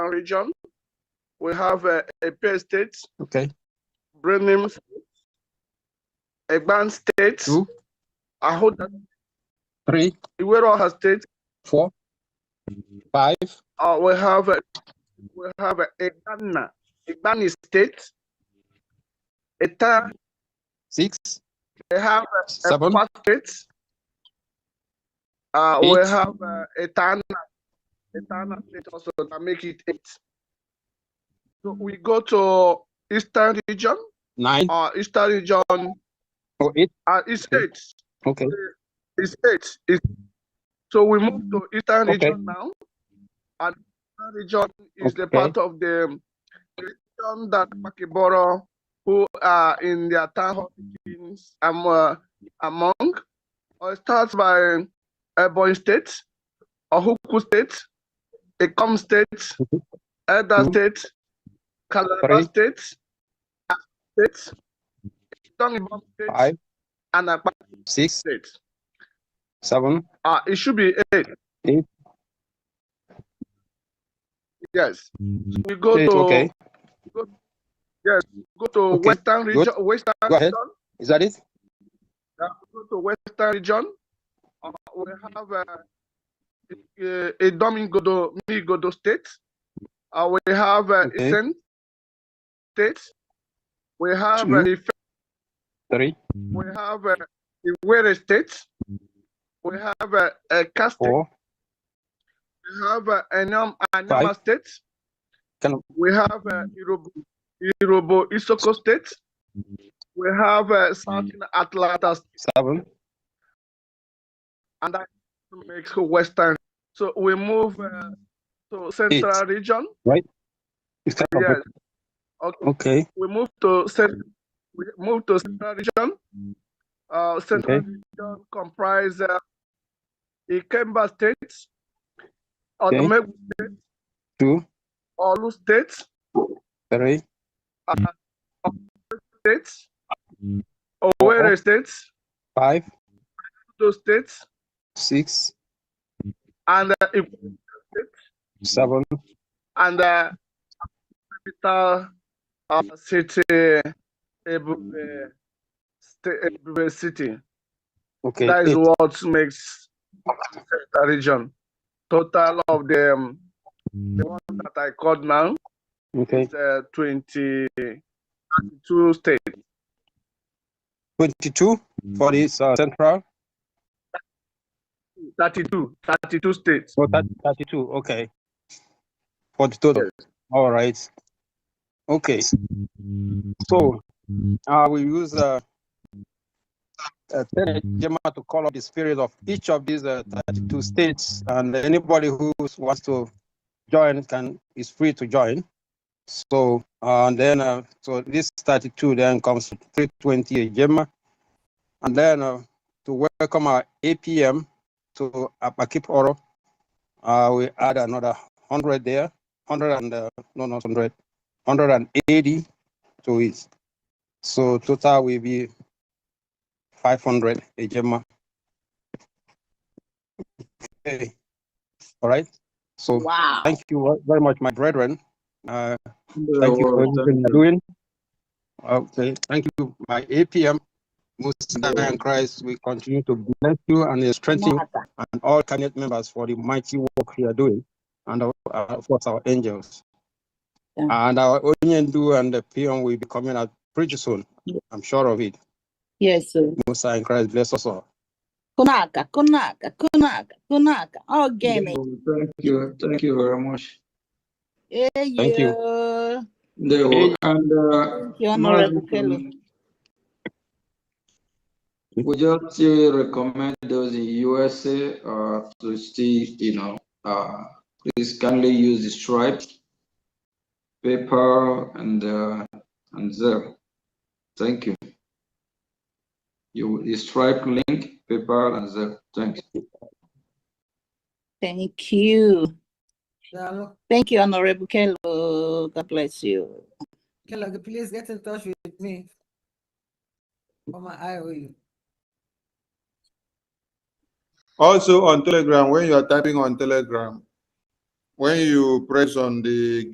region. We have uh, Epe State, Okay. Brenim State, Egban State, Two, Ahoda, three, Iweroha State. four, five, Uh, we have uh, we have uh, Egana, Egbani State. Eta, six, we have uh, seven, Ekwa State. Uh, we Eight. have uh, Etana, Etana State also that make it eight. So we go to Eastern region. nine, uh, Eastern region, or eight. uh, it's Okay. eight, Okay. it's eight. It's, so we move to Eastern Okay. region now. And Eastern region is the Okay. part of the region that Makiboro, who are in their town hall meetings, am, uh, among. Or it starts by Ebony State, Ohuku State, Ekom State, Mhm. Elda Mhm. State, Calabar Three. State, Akwa State, Ibom State, Five, and Akwa six, State. seven, Uh, it should be eight. Eight. Yes. We go eight. to Mm-hmm. Okay. go to Okay, Western good. region. Western Go ahead. region. Is that it? Uh, we go to Western region. Uh, we have uh, uh, a Domingo Migodo state. Uh, we have uh, Okay. Eastern state. We have Two. uh, Ife- Three, we have uh, Iwere state. We have uh, uh, Casting. four. We have uh, Anam Anama Five. state. Can- We have uh, Irobo, Irobo Isoko State. We have uh, Mm. Southern Atlanta State Seven, and that makes Western. So we move uh, to Central Region. It's kind of Yes. it. Okay. Okay. We move to Central. We move to Central Region. Uh, Central Okay. Region comprise uh, Ikemba State, Okay. Otomegu, Two, Olu State, three, State, Mm. Oh. Owerri State, five, Edo State, six, and uh, Ib- seven, and uh, capital uh, city Ebube, sta- Ebube city. okay. that is eight. what makes the region. Total of the, um, Mm. the one that I called now Okay. is uh, 20, 32 states. Twenty-two for this uh, central. 32, 32 states. Oh, that, thirty-two. Okay. For the total. All right. Okay. So uh, we use uh, uh, Telegema to call up the spirit of each of these uh, 32 states, and anybody who wants to join can is free to join. So uh, and then uh, so this 32 then comes to 320 Gemma, and then uh, to welcome our APM to Apakip Oro, uh, we add another 100 there, 100 and uh, no not 100, 180 to it. So total will be five hundred Ejema. Okay, all right. So Wow. thank you ver- very much, my brethren. Uh, thank you for everything you're doing. Okay, thank you, my APM, Muslim and Christ. We continue to bless you and strengthen you and all cabinet members for the mighty work you are doing, and of- uh, of course our angels. Yeah. And our Onyendu and the peon will be coming out pretty soon. I'm sure of it. Yes, sir. Musa and Christ bless us all. Kunaka, kunaka, kunaka, kunaka. Oh, gaming. Thank you, thank you very much. Yeah, Thank you. you. They will, and, uh, um, You're not Mazi, a fellow. We just still recommend those in USA, uh, to still, you know, uh, please kindly use the Stripe, PayPal, and, uh, and Zelle. Thank you. You, the Stripe link, PayPal, and Zelle, thanks. Thank you. Thank you, Honorable Kello. God bless you. Kellogg, please get in touch with me. Mama, I will. Also on Telegram, when you are typing on Telegram, when you press on the